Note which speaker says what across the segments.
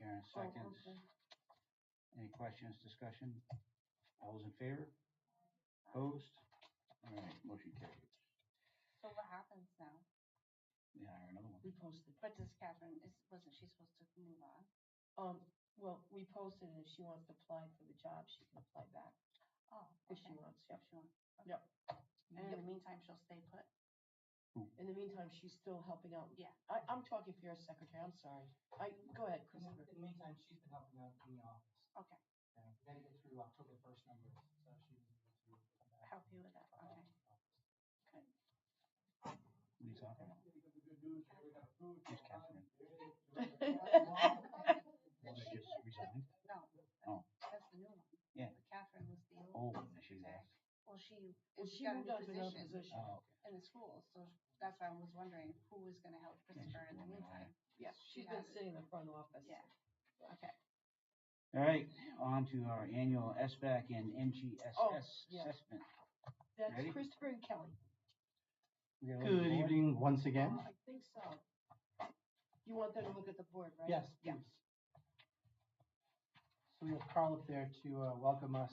Speaker 1: Oh,
Speaker 2: seconds. Any questions, discussion? All those in favor? Opposed? All right, motion carries.
Speaker 3: So what happens now?
Speaker 2: We hire another one.
Speaker 1: We posted,
Speaker 3: But does Catherine, is, wasn't she supposed to move on?
Speaker 1: um, well, we posted and if she wants to apply for the job, she can apply back
Speaker 3: Oh,
Speaker 1: if
Speaker 3: okay.
Speaker 1: she wants, yep.
Speaker 3: If she wants. okay.
Speaker 1: Yep.
Speaker 3: And in the meantime, she'll stay put?
Speaker 1: In the meantime, she's still helping out.
Speaker 3: Yeah.
Speaker 1: I, I'm talking for your secretary, I'm sorry. I, go ahead,
Speaker 4: In the
Speaker 1: Christopher.
Speaker 4: in the meantime, she's been helping out in the office.
Speaker 3: Okay.
Speaker 4: And we gotta get through October first numbers, so she was able to come back.
Speaker 3: Help you with that,
Speaker 4: uh,
Speaker 5: Oh.
Speaker 3: okay.
Speaker 2: What are you talking about? Miss Catherine. Well, they just resigned.
Speaker 3: No,
Speaker 2: Oh.
Speaker 3: that's the new one.
Speaker 2: Yeah.
Speaker 3: But Catherine was the
Speaker 2: Oh,
Speaker 3: old
Speaker 2: she
Speaker 3: secretary.
Speaker 2: left.
Speaker 3: Well, she,
Speaker 1: Well, she
Speaker 3: she got a
Speaker 1: moved
Speaker 3: new
Speaker 1: on to another
Speaker 3: position
Speaker 1: position.
Speaker 2: Oh,
Speaker 3: in the school, so that's why I was wondering who was gonna help
Speaker 2: Yeah, she's
Speaker 3: Christopher in the
Speaker 2: going away.
Speaker 3: meantime.
Speaker 1: Yeah,
Speaker 3: Mm-hmm. she
Speaker 1: she's been
Speaker 3: has it.
Speaker 1: sitting in the front office.
Speaker 3: Yeah. Okay.
Speaker 2: All right, on to our annual SBAC and
Speaker 1: Oh,
Speaker 2: NGSS
Speaker 1: yeah.
Speaker 2: assessment.
Speaker 1: That's
Speaker 2: Ready?
Speaker 1: Christopher and Kelly. Oh,
Speaker 2: We got a little
Speaker 5: Good
Speaker 2: board?
Speaker 5: evening once again.
Speaker 1: I think so. You want them to look at the board, right?
Speaker 5: Yes,
Speaker 1: Yeah.
Speaker 5: please. So we have Carl up there to uh, welcome us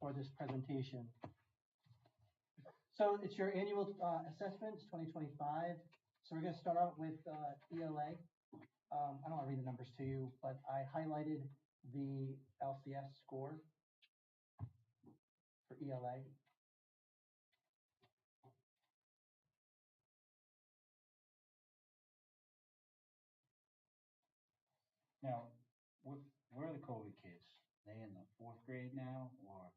Speaker 5: for this presentation. So it's your annual uh, assessments, 2025. So we're going to start out with uh, ELA. Um, I don't want to read the numbers to you, but I highlighted the LCS score for E ELA.
Speaker 2: Now, where, where are the COVID kids? They in the fourth grade now or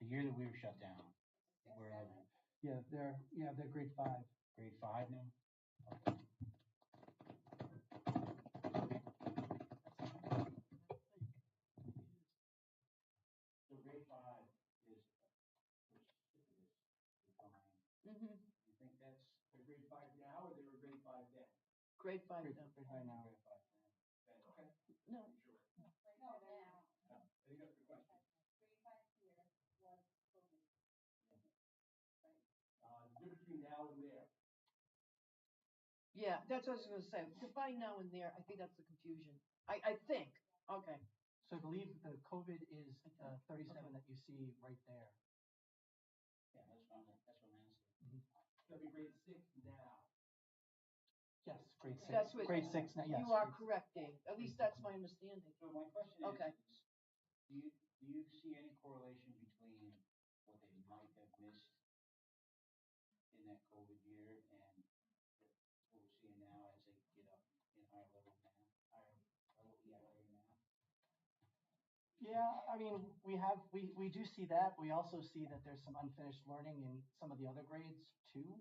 Speaker 2: the year that we were shut down? Where are they?
Speaker 5: Yeah, they're, yeah, they're grade five.
Speaker 2: Grade five now? So grade five is. You
Speaker 1: Mm-hmm.
Speaker 2: think that's?
Speaker 4: They're grade five now, or they were grade five then?
Speaker 1: Grade five
Speaker 5: Grade
Speaker 1: though.
Speaker 5: grade five now.
Speaker 1: No,
Speaker 4: Uh, the difference between now and there.
Speaker 1: yeah, that's what I was gonna say. Define now and there, I think that's the confusion. I, I think, okay.
Speaker 5: So I believe the COVID is uh, 37 that you see right there.
Speaker 2: Yeah, that's what I'm, that's what I'm asking.
Speaker 4: They'll be grade six now.
Speaker 5: Yes, grade six.
Speaker 1: That's what-
Speaker 5: grade six now. Yes.
Speaker 1: You are
Speaker 5: grade six.
Speaker 1: correct, Dave. At least that's my understanding.
Speaker 2: So my question is.
Speaker 1: Okay.
Speaker 2: is Do you, do you see any correlation between what they might have missed in that COVID year and what we're seeing now as they get up in higher level now, higher level ELA now?
Speaker 5: Yeah, I mean, we have we we do see that. We also see that there's some unfinished learning in some of the other grades too.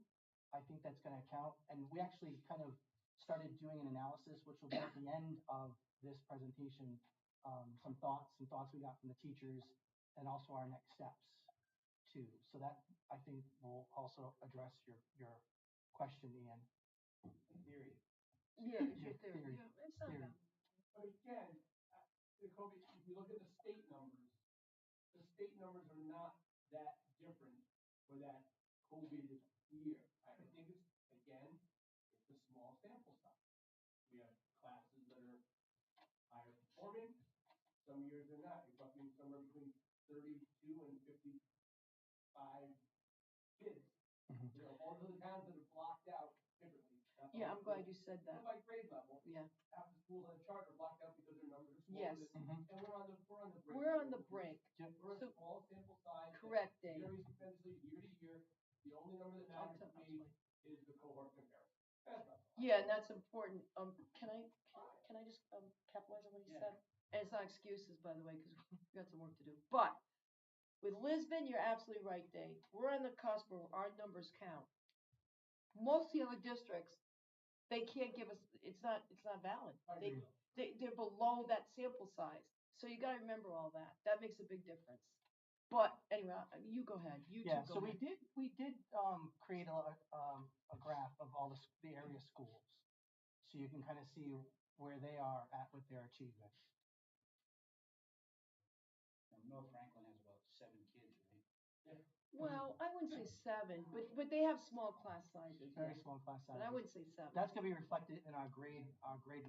Speaker 5: I think that's going to account, and we actually kind of started doing an analysis, which will be at the end of this presentation. Um, some thoughts, some thoughts we got from the teachers, and also our next steps too. So that I think will also address your your question, Ian.
Speaker 4: In theory.
Speaker 1: Yeah, it's
Speaker 5: Yeah,
Speaker 1: your theory.
Speaker 5: theory,
Speaker 1: Yeah, it's not
Speaker 5: theory.
Speaker 1: bad.
Speaker 4: But again, uh, the COVID, if you look at the state numbers, the state numbers are not that different for that COVID year. I I think it's, again, it's a small sample size. We have classes that are higher performing, some years they're not. You're talking somewhere between thirty-two and fifty-five kids.
Speaker 5: Mhm.
Speaker 4: You know, all those towns that are blocked out differently. Not
Speaker 1: Yeah,
Speaker 4: all
Speaker 1: I'm
Speaker 4: schools.
Speaker 1: glad you said that.
Speaker 4: But by grade level,
Speaker 1: Yeah.
Speaker 4: half the schools on charter blocked out because their numbers are smaller.
Speaker 1: Yes.
Speaker 4: than-
Speaker 5: Mm-hmm.
Speaker 4: And we're on the, we're on the break.
Speaker 1: We're on the break.
Speaker 4: We're a
Speaker 1: So-
Speaker 4: small sample size. that
Speaker 1: Correct, Dave.
Speaker 4: Varies tremendously year to year. The only number that
Speaker 1: Talk
Speaker 4: matters
Speaker 1: to
Speaker 4: to me is the cohort comparison. That's not
Speaker 1: Yeah, and that's important. Um, can I, can I just, um, capitalize on what you
Speaker 2: Yeah.
Speaker 1: said? And it's not excuses, by the way, because we've got some work to do. But with Lisbon, you're absolutely right, Dave. We're on the cusp where our numbers count. Most of the other districts, they can't give us, it's not, it's not valid.
Speaker 4: I
Speaker 1: They,
Speaker 4: agree.
Speaker 1: they, they're below that sample size. So you gotta remember all that. That makes a big difference. But anyway, I- you go ahead. You two
Speaker 5: Yeah,
Speaker 1: go
Speaker 5: so we
Speaker 1: ahead.
Speaker 5: did, we did, um, create a, um, a graph of all the, s- the area schools. So you can kind of see where they are at with their achievement.
Speaker 2: Now, North Franklin has about seven kids, right?
Speaker 1: Well, I wouldn't say seven, but, but they have small class sizes.
Speaker 5: Very small class
Speaker 1: But I
Speaker 5: sizes.
Speaker 1: wouldn't say seven.
Speaker 5: That's gonna be reflected in our grade, our grade